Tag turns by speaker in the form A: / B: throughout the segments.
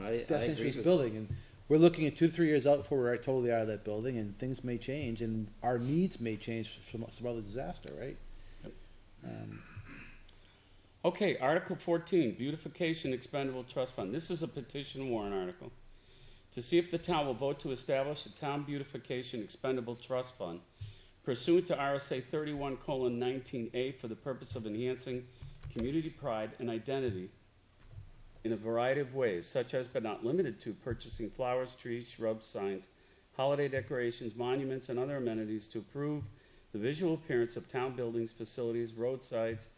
A: I, I
B: that's
A: agree
B: interest
A: with-
B: building, and we're looking at two, three years out before we're totally out of that building, and things may change, and our needs may change from some other disaster, right? Um,
C: Okay, Article fourteen, beautification expendable trust fund. This is a petition warrant article. To see if the town will vote to establish a town beautification expendable trust fund pursuant to RSA thirty-one colon nineteen A for the purpose of enhancing community pride and identity in a variety of ways, such as but not limited to purchasing flowers, trees, shrubs, signs, holiday decorations, monuments, and other amenities to improve the visual appearance of town buildings, facilities, roadsides,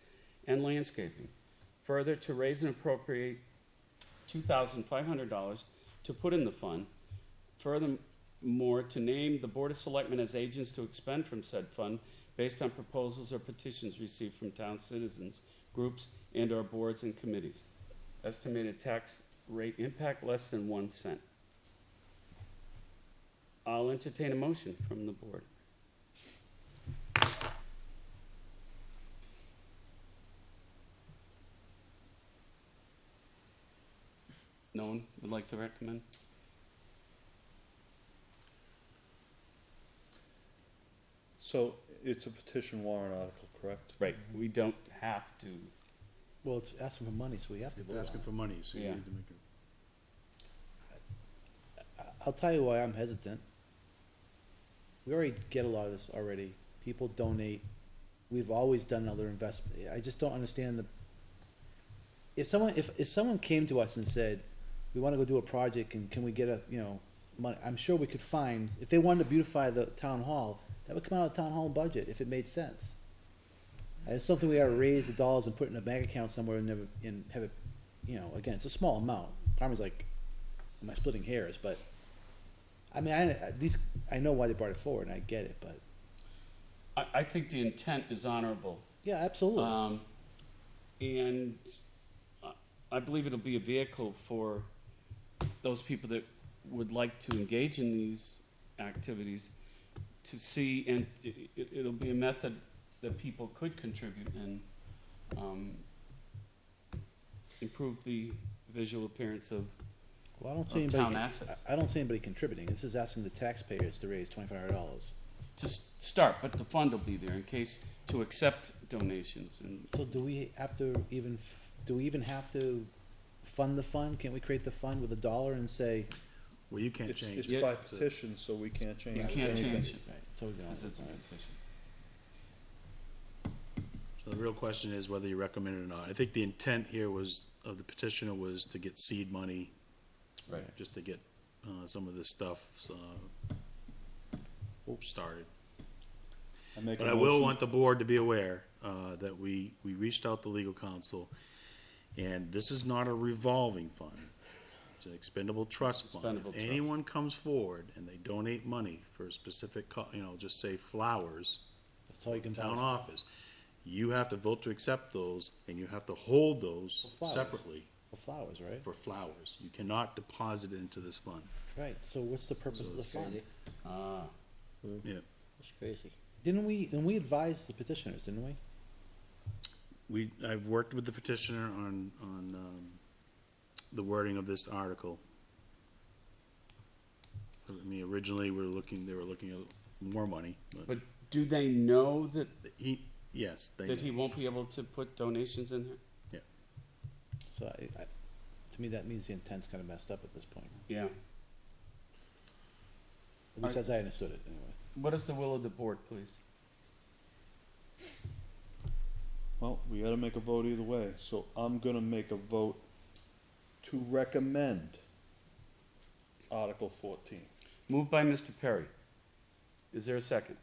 C: and landscaping. Further, to raise and appropriate two thousand five hundred dollars to put in the fund. Furthermore, to name the Board of Selectmen as agents to expend from said fund based on proposals or petitions received from town citizens, groups, and or boards and committees. Estimated tax rate impact less than one cent. I'll entertain a motion from the board. No one would like to recommend?
D: So it's a petition warrant article, correct?
C: Right, we don't have to.
B: Well, it's asking for money, so we have to
E: It's
B: vote on it.
E: asking for money, so you
C: Yeah.
E: need to make it.
B: I- I'll tell you why I'm hesitant. We already get a lot of this already. People donate. We've always done other investment. I just don't understand the. If someone, if, if someone came to us and said, we wanna go do a project and can we get a, you know, money, I'm sure we could find, if they wanted to beautify the town hall, that would come out of town hall budget if it made sense. I just don't think we gotta raise the dollars and put it in a bank account somewhere and never, and have it, you know, again, it's a small amount. Parma's like, am I splitting hairs? But I mean, I, I- these I know why they brought it forward, and I get it. But
C: I, I think the intent is honorable.
B: yeah, absolutely.
C: Um, and I- I believe it'll be a vehicle for those people that would like to engage in these activities to see, and it, it- it'll be a method that people could contribute and, um, improve the visual appearance of,
B: well, I don't see
C: of
B: anybody.
C: town assets.
B: I- I don't see anybody contributing. This is asking the taxpayers to raise twenty five hundred dollars.
C: to s- start, but the fund will be there in case to accept donations and
B: So do we have to even? f- Do we even have to fund the fund? Can't we create the fund with a dollar and say?
E: Well, you can't
D: It's,
E: change
D: it's
E: it.
C: Yeah.
D: by petition, so we can't change
C: you
D: anything.
C: can't change it
B: Right. So we don't.
C: because it's a
B: All right.
C: petition.
E: So the real question is whether you recommend it or not. I think the intent here was, of the petitioner was to get seed money,
C: Right.
E: just to get, uh, some of this stuff, uh, started.
D: I make a
E: But I will
D: motion-
E: want the board to be aware, uh, that we, we reached out to legal counsel, and this is not a revolving fund. It's an expendable trust fund.
C: Expendable
E: If
C: trust.
E: anyone comes forward and they donate money for a specific, co- you know, just say flowers,
B: That's all you can
E: town
B: buy.
E: office, you have to vote to accept those, and you have to hold those
B: For flowers.
E: separately
B: for flowers, right?
E: for flowers. You cannot deposit it into this fund.
B: Right. So what's the purpose of the fund?
A: Crazy.
C: Ah.
E: Yeah.
A: It's crazy.
B: Didn't we? And we advised the petitioners, didn't we?
E: We, I've worked with the petitioner on, on, um, the wording of this article. I mean, originally, we were looking, they were looking at more money, but
C: But do they know that,
E: he, yes, they,
C: that he won't be able to put donations in there?
B: So I, I, to me, that means the intent's kind of messed up at this point.
C: Yeah.
B: At least
C: I-
B: as I understood it, anyway.
C: What is the will of the board, please?
D: Well, we gotta make a vote either way, so I'm gonna make a vote to recommend Article fourteen.
C: Moved by Mr. Perry. Is there a second?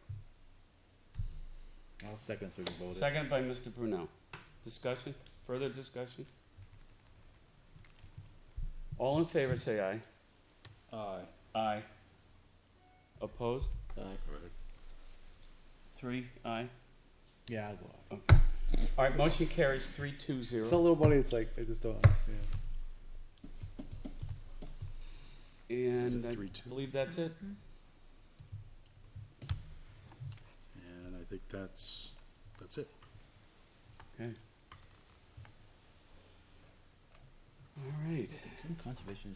B: I'll second so we can vote it.
C: Second by Mr. Brunel. Discussion? Further discussion? All in favor, say aye.
D: Aye.
C: Aye. Opposed?
A: Aye.
C: Three, aye.
B: Yeah, I'll go out.
C: All right, motion carries three two zero.
B: Some little money, it's like, I just don't understand.
E: Is
C: And
E: it
C: I
E: three two?
C: believe that's it.
E: and I think that's, that's it.
C: Okay. All right.
B: Conservation